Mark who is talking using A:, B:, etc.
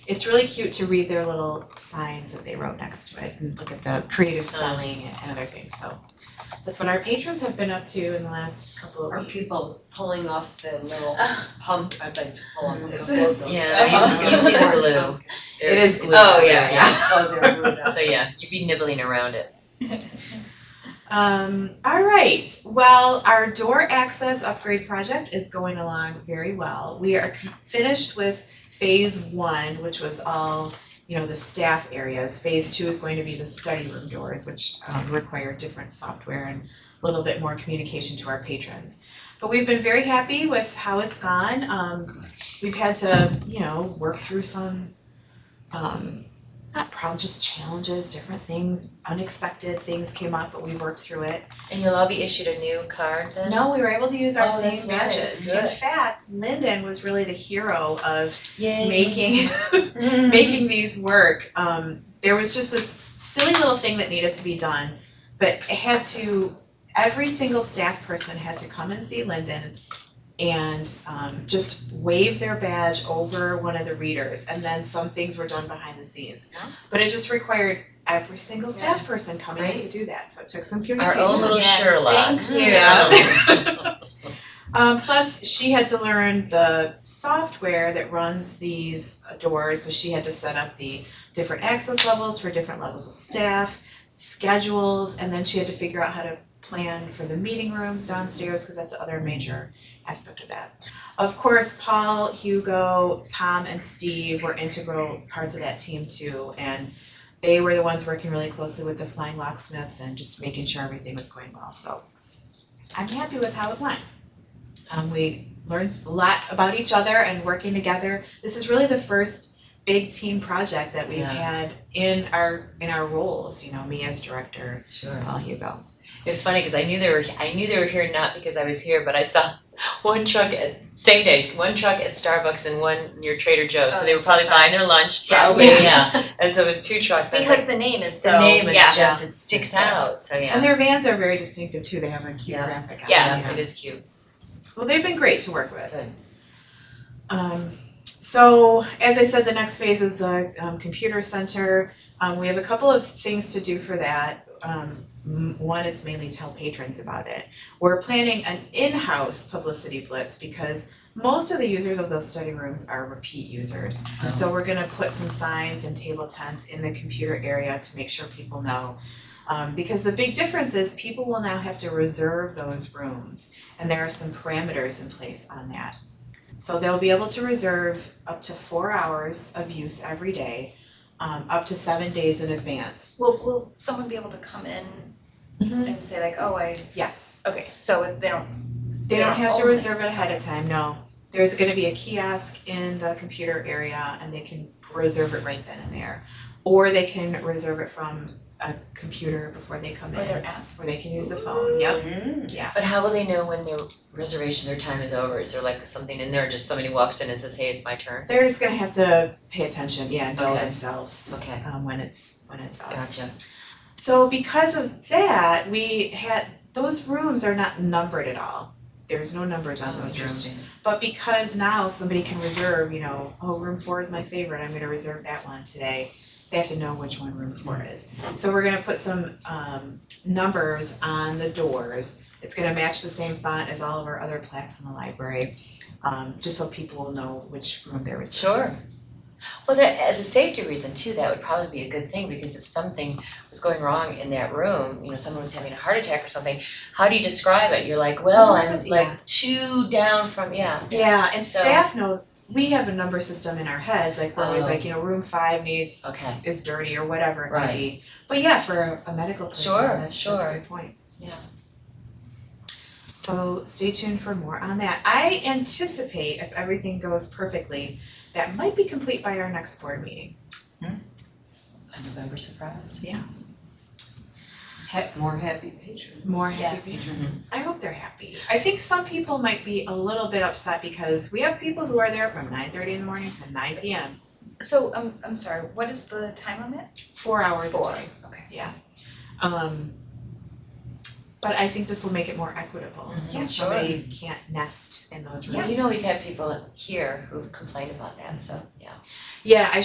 A: It's really cute to read their little signs that they wrote next to it and look at the creative spelling and- and other things, so. That's what our patrons have been up to in the last couple of
B: Are
A: weeks.
B: people pulling off the little pump, I'd like to pull off the
C: Is
B: logos.
C: Yeah, you see, you see the glue.
A: It is glue.
C: Oh, yeah, yeah.
B: Oh, they're glued up.
C: So yeah, you'd be nibbling around it.
A: Um, all right, well, our door access upgrade project is going along very well. We are finished with phase one, which was all, you know, the staff areas. Phase two is going to be the study room doors, which um, require different software and a little bit more communication to our patrons. But we've been very happy with how it's gone. Um, we've had to, you know, work through some, um, not problems, just challenges, different things, unexpected things came up, but we worked through it.
C: And you'll all be issued a new card then?
A: No, we were able to use our
C: Oh,
A: same
C: that's nice.
A: badges. In
C: Good.
A: fact, Linden was really the hero of
C: Yay.
A: making
C: Mm.
A: making these work. Um, there was just this silly little thing that needed to be done, but it had to every single staff person had to come and see Linden and um, just wave their badge over one of the readers and then some things were done behind the scenes.
C: Yeah.
A: But it just required every single staff person coming in to do that. So it took some
C: Our
A: communication.
C: own little
D: Yes,
C: Sherlock.
D: thank you.
A: Yeah. Um, plus, she had to learn the software that runs these doors, so she had to set up the different access levels for different levels of staff, schedules, and then she had to figure out how to plan for the meeting rooms downstairs, because that's the other major aspect of that. Of course, Paul, Hugo, Tom, and Steve were integral parts of that team too, and they were the ones working really closely with the flying locksmiths and just making sure everything was going well, so I'm happy with how it went. Um, we learned a lot about each other and working together. This is really the first big team project that we've
C: Yeah.
A: had in our in our roles. You know, me as director,
C: Sure.
A: Paul Hugo.
C: It was funny because I knew they were I knew they were here not because I was here, but I saw one truck at same day, one truck at Starbucks and one near Trader Joe's. so
D: Oh,
C: they were
D: that's
C: probably
D: so
C: buying their lunch.
A: Probably.
C: Yeah. And so it was two trucks. I was
D: Um, Because
C: like,
D: the name is
C: the
D: so,
C: name is
D: yeah.
C: just it sticks out. So yeah.
A: And their vans are very distinctive too. They have a cute
C: Yeah.
A: graphic on
C: yeah,
A: them.
C: it is cute.
A: Well, they've been great to work with.
C: Good.
A: Um, so as I said, the next phase is the um, computer center. Um, we have a couple of things to do for that. Um, m- one is mainly tell patrons about it. We're planning an in-house publicity blitz because most of the users of those study rooms are repeat users. So we're gonna put some signs and table tents in the computer area to make sure people know. Um, because the big difference is people will now have to reserve those rooms and there are some parameters in place on that. So they'll be able to reserve up to four hours of use every day, um, up to seven days in advance.
D: Will, will someone be able to come in and say like, oh, I,
A: Yes.
D: okay, so if they don't,
A: They don't have to
D: Only.
A: reserve it ahead of time, no. There's gonna be a kiosk in the computer area and they can reserve it right then and there. Or they can reserve it from a computer before they come
D: or
A: in,
D: their app?
A: or they can use the phone, yep.
C: But how will they know when their reservation, their time is over? Is there like something in there, just somebody walks in and says, hey, it's my turn?
A: They're just gonna have to pay attention, yeah, and know
C: Okay.
A: themselves,
C: Okay,
A: um, when it's, when it's up.
C: gotcha.
A: So because of that, we had, those rooms are not numbered at all. There's no numbers on those rooms.
C: Oh, Interesting.
A: But because now somebody can reserve, you know, oh, room four is my favorite, I'm gonna reserve that one today. They have to know which one room four is.
C: Mm-hmm.
A: So we're gonna put some um numbers on the doors. It's gonna match the same font as all of our other plaques in the library, um, just so people will know which room they're reserving.
C: Sure. Well, that, as a safety reason too, that would probably be a good thing, because if something was going wrong in that room, you know, someone was having a heart attack or something, how do you describe it? You're like, well,
A: Well,
C: I'm
A: so- yeah.
C: like two down from, yeah.
A: Yeah, and
C: So-
A: staff know, we have a number system in our heads, like we're always
C: Oh.
A: like, you know, room five needs
C: Okay,
A: is dirty or whatever it may
C: Right.
A: be. But yeah, for a medical person,
C: Sure,
A: that's that's a
C: sure.
A: good point.
C: Yeah.
A: So stay tuned for more on that. I anticipate if everything goes perfectly, that might be complete by our next board meeting.
C: a November surprise.
B: Ha- more happy patrons.
A: More happy
D: Yes.
A: patrons.
C: Mm-hmm.
A: I hope they're happy. I think some people might be a little bit upset because we have people who are there from nine thirty in the morning to nine P M.
D: So, um, I'm sorry, what is the time limit?
A: Four hours a
D: Four,
A: day.
D: okay.
A: Yeah. Um but I think this will make it more equitable.
C: Mhm.
A: So
D: Yeah,
A: if
C: sure.
A: somebody can't nest in those rooms.
C: Well, you know, we've had people here who've complained about that, so, yeah.
A: Yeah, I